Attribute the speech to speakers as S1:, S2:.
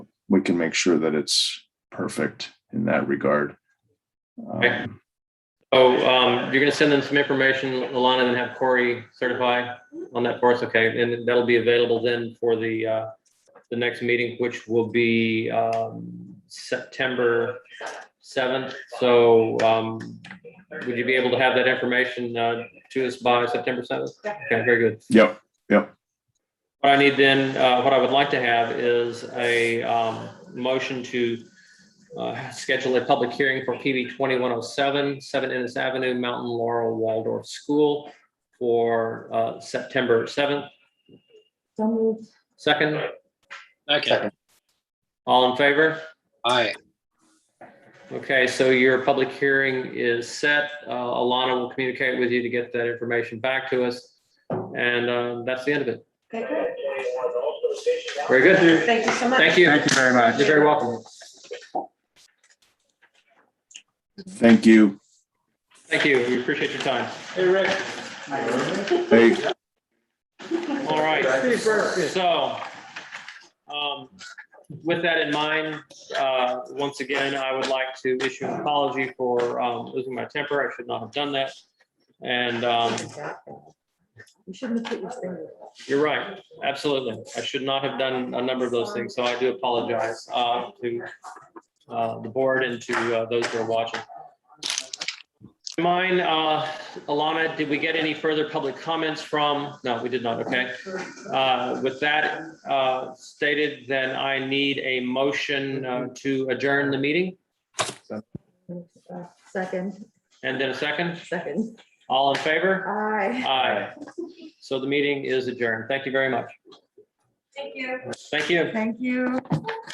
S1: we can make sure that it's perfect in that regard.
S2: Okay.
S1: Um,
S2: Oh, um, you're gonna send them some information, Alana, and have Corey certify on that for us, okay? And that'll be available then for the, uh, the next meeting, which will be, um, September seventh. So, um, would you be able to have that information, uh, to us by September seventh? Okay, very good.
S1: Yep,
S2: What I need then, uh, what I would like to have is a, um, motion to, uh, schedule a public hearing for PB twenty-one oh seven, Seven Innes Avenue, Mountain Laurel Waldorf School for, uh, September seventh.
S3: So moved.
S2: Second,
S4: Okay,
S2: all in favor?
S4: aye,
S2: Okay, so your public hearing is set. Uh, Alana will communicate with you to get that information back to us. And, uh, that's the end of it.
S3: Okay, great.
S2: Very good.
S3: Thank you so much.
S2: Thank you.
S5: Thank you very much.
S2: You're very welcome.
S1: thank you.
S2: Thank you. We appreciate your time.
S1: Hey,
S2: All right. So, um, with that in mind, uh, once again, I would like to issue an apology for, um, losing my temper. I should not have done that. And, um,
S3: You shouldn't have put your finger.
S2: you're right. Absolutely. I should not have done a number of those things. So I do apologize, uh, to, uh, the board and to, uh, those who are watching. Mine, uh, Alana, did we get any further public comments from? No, we did not. Okay. Uh, With that uh, stated, then I need a motion uh, to adjourn the meeting
S3: Uh, Second,
S2: and then a second.
S3: second.
S2: All in favor?
S3: Aye.
S2: Aye. So the meeting is adjourned. Thank you very much.
S6: Thank you.
S2: Thank you.
S3: Thank you.